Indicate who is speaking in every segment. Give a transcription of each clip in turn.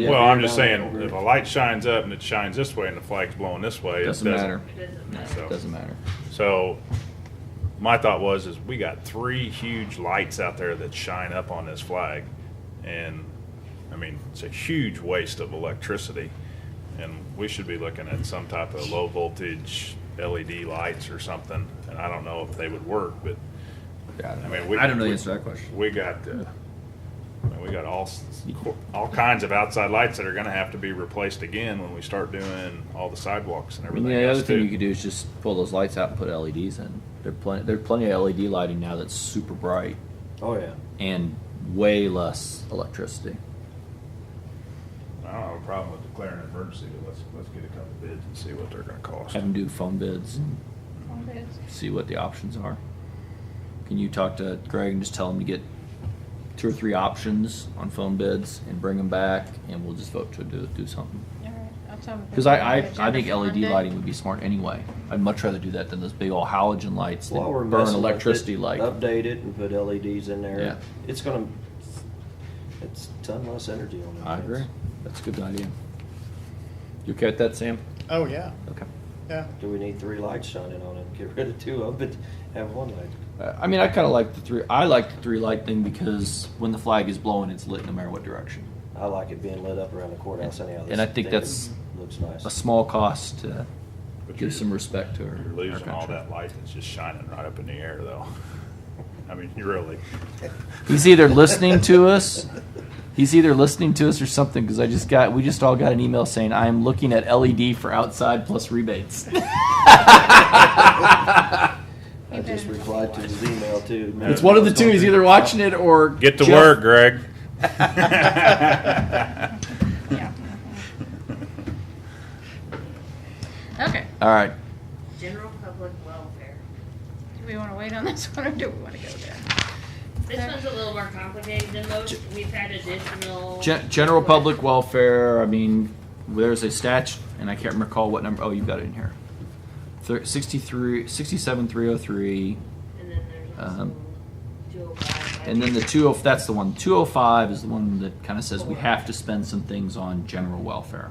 Speaker 1: Yeah,
Speaker 2: Well,
Speaker 1: you're
Speaker 2: I'm just
Speaker 1: down
Speaker 2: saying,
Speaker 1: over.
Speaker 2: if a light shines up and it shines this way and the flag's blowing this way, it
Speaker 1: Doesn't
Speaker 2: doesn't.
Speaker 1: matter.
Speaker 3: It doesn't matter.
Speaker 2: So-
Speaker 1: Doesn't matter.
Speaker 2: So, my thought was, is we got three huge lights out there that shine up on this flag. And, I mean, it's a huge waste of electricity. And we should be looking at some type of low voltage LED lights or something. And I don't know if they would work, but,
Speaker 1: Yeah, I don't
Speaker 2: I
Speaker 1: know.
Speaker 2: mean, we.
Speaker 1: I don't know the
Speaker 2: we-
Speaker 1: answer to that question.
Speaker 2: We got, uh, I mean, we got all, s- all kinds of outside lights that are gonna have to be replaced again when we start doing all the sidewalks and
Speaker 1: I mean,
Speaker 2: everything
Speaker 1: the other
Speaker 2: else
Speaker 1: thing you
Speaker 2: too.
Speaker 1: could do is just pull those lights out and put LEDs in. There are plenty, there are plenty of LED lighting now that's super bright
Speaker 4: Oh, yeah.
Speaker 1: and way less electricity.
Speaker 2: I don't have a problem with declaring an emergency, but let's, let's get a couple bids and see what they're gonna cost.
Speaker 1: Have them do phone bids and
Speaker 3: Okay.
Speaker 1: see what the options are. Can you talk to Greg and just tell him to get two or three options on phone bids and bring them back and we'll just vote to do, do something.
Speaker 3: All right, I'll tell them.
Speaker 1: Cause I, I, I think LED lighting would be smart anyway. I'd much rather do that than those big old halogen lights that
Speaker 4: While we're
Speaker 1: burn
Speaker 4: messing with
Speaker 1: electricity
Speaker 4: it,
Speaker 1: like.
Speaker 4: Update it and put LEDs in there.
Speaker 1: Yeah.
Speaker 4: It's gonna, it's a ton less energy on it.
Speaker 1: I agree. That's a good idea. You okay with that, Sam?
Speaker 5: Oh, yeah,
Speaker 1: Okay.
Speaker 5: yeah.
Speaker 4: Do we need three lights shining on it? Get rid of two of them, but have one light.
Speaker 1: Uh, I mean, I kind of like the three. I like the three light thing because when the flag is blowing, it's lit no matter what direction.
Speaker 4: I like it being lit up around the courthouse anyhow.
Speaker 1: And I think that's
Speaker 4: Looks
Speaker 1: A
Speaker 4: nice.
Speaker 1: small cost to
Speaker 2: But
Speaker 1: give
Speaker 2: you're-
Speaker 1: some respect to our,
Speaker 2: You're
Speaker 1: our
Speaker 2: losing all
Speaker 1: country.
Speaker 2: that light that's just shining right up in the air though. I mean, you really.
Speaker 1: He's either listening to us, he's either listening to us or something. Because I just got, we just all got an email saying I am looking at LED for outside plus rebates.
Speaker 4: I just replied to his email too.
Speaker 1: It's one of the two. He's either watching it or
Speaker 2: Get to
Speaker 1: Jeff-
Speaker 2: work, Greg.
Speaker 3: Yeah. Okay,
Speaker 1: All right.
Speaker 6: General public welfare.
Speaker 3: do we wanna wait on this one or do we wanna go there?
Speaker 6: This one's a little more complicated than most. We've had additional.
Speaker 1: Gen- general public welfare. I mean, there's a statute, and I can't recall what number. Oh, you've got it in here. Thir- 63, 67303,
Speaker 6: And then there's also
Speaker 1: Um,
Speaker 6: two oh five.
Speaker 1: and then the 20. That's the one. 205 is the one that kind of says we have to spend some things on general welfare.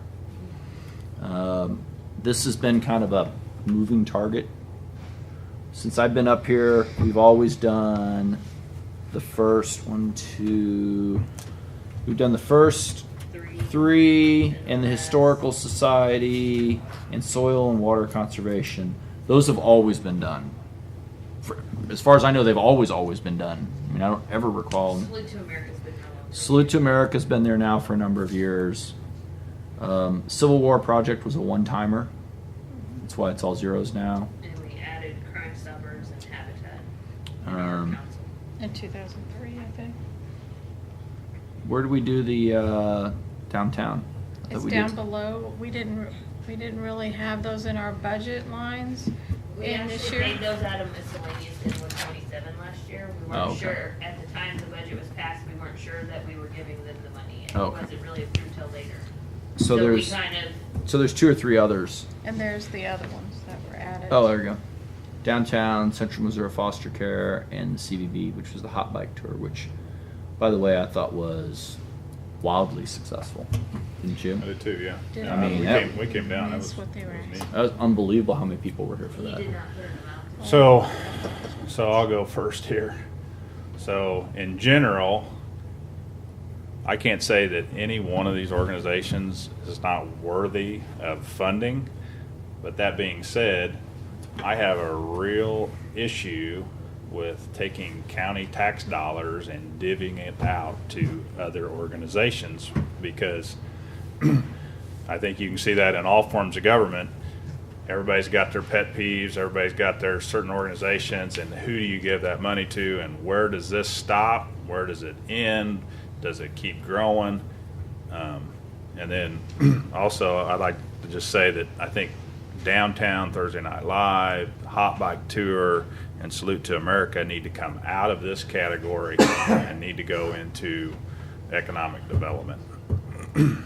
Speaker 1: Um, this has been kind of a moving target. Since I've been up here, we've always done the first one, two. We've done the first,
Speaker 6: Three.
Speaker 1: three and the historical society and soil and water conservation those have always been done For, as far as i know they've always always been done i mean i don't ever recall
Speaker 6: Salute to America's been how long?
Speaker 1: salute to america's been there now for a number of years um, civil war project was a one-timer that's why it's all zeros now
Speaker 6: And we added Crime Stoppers and Habitat. in our
Speaker 1: um,
Speaker 6: council.
Speaker 3: In two thousand three, I think.
Speaker 1: where do we do the uh, downtown I thought
Speaker 3: It's
Speaker 1: we
Speaker 3: down
Speaker 1: did-
Speaker 3: below, we didn't, re- we didn't really have those in our budget lines
Speaker 6: We
Speaker 3: in this
Speaker 6: actually
Speaker 3: year.
Speaker 6: made those out of miscellaneous in one twenty-seven last year. We
Speaker 1: Oh,
Speaker 6: weren't
Speaker 1: okay.
Speaker 6: sure, at the time the budget was passed, we weren't sure that we were giving them the money. and
Speaker 1: Okay.
Speaker 6: It wasn't really approved till later.
Speaker 1: so
Speaker 6: we
Speaker 1: there's
Speaker 6: Kind of
Speaker 1: so there's two or three others
Speaker 3: And there's the other ones that were added.
Speaker 1: Oh, there we go. Downtown, Central Missouri Foster Care, and the CVB, which was the hot bike tour, which, by the way, I thought was wildly successful. Didn't you?
Speaker 2: I did too, yeah.
Speaker 3: Did
Speaker 2: Yeah, I mean,
Speaker 1: it.
Speaker 2: we
Speaker 1: That-
Speaker 2: came, we came down. That
Speaker 3: That's
Speaker 2: was,
Speaker 3: what they
Speaker 2: that
Speaker 3: were
Speaker 2: was neat.
Speaker 3: asking.
Speaker 1: That was unbelievable how many people were here for
Speaker 6: We
Speaker 1: that.
Speaker 6: did not put an amount. to it.
Speaker 2: So, so I'll go first here. So, in general, I can't say that any one of these organizations is not worthy of funding. But that being said, I have a real issue with taking county tax dollars and divvying it out to other organizations because I think you can see that in all forms of government. Everybody's got their pet peeves, everybody's got their certain organizations, and who do you give that money to, and where does this stop? Where does it end? Does it keep growing? Um, and then also, I'd like to just say that I think Downtown, Thursday Night Live, Hot Bike Tour, and Salute to America need to come out of this category and need to go into economic development.
Speaker 1: And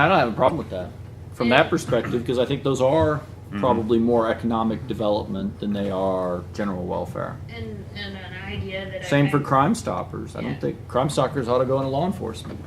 Speaker 1: I don't have a problem with that from that perspective because I think those are probably more economic development than they are general welfare.
Speaker 6: And, and an idea that I
Speaker 1: Same for
Speaker 6: had-
Speaker 1: Crime Stoppers. I
Speaker 6: Yeah.
Speaker 1: don't think Crime Stoppers ought to go into law enforcement.